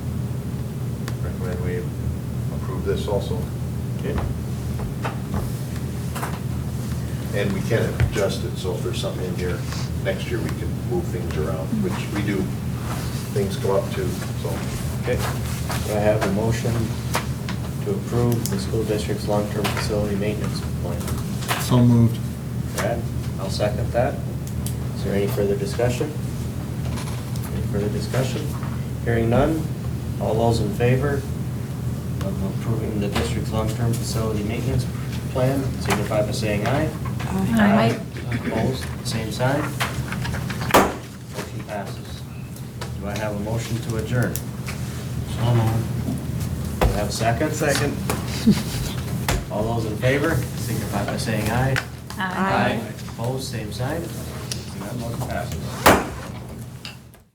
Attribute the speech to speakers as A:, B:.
A: approve this also.
B: Okay.
A: And we can adjust it, so if there's something in here, next year we can move things around, which we do, things come up too, so.
B: Okay.
C: Do I have a motion to approve the school district's long-term facility maintenance plan?
D: So moved.
C: Brad, I'll second that. Is there any further discussion? Any further discussion? Hearing none, all those in favor of approving the district's long-term facility maintenance plan, signify by saying aye.
E: Aye.
C: Opposed, same sign. Motion passes. Do I have a motion to adjourn? So Do I have a second? Second. All those in favor, signify by saying aye.
E: Aye.
C: Opposed, same sign. That motion passes.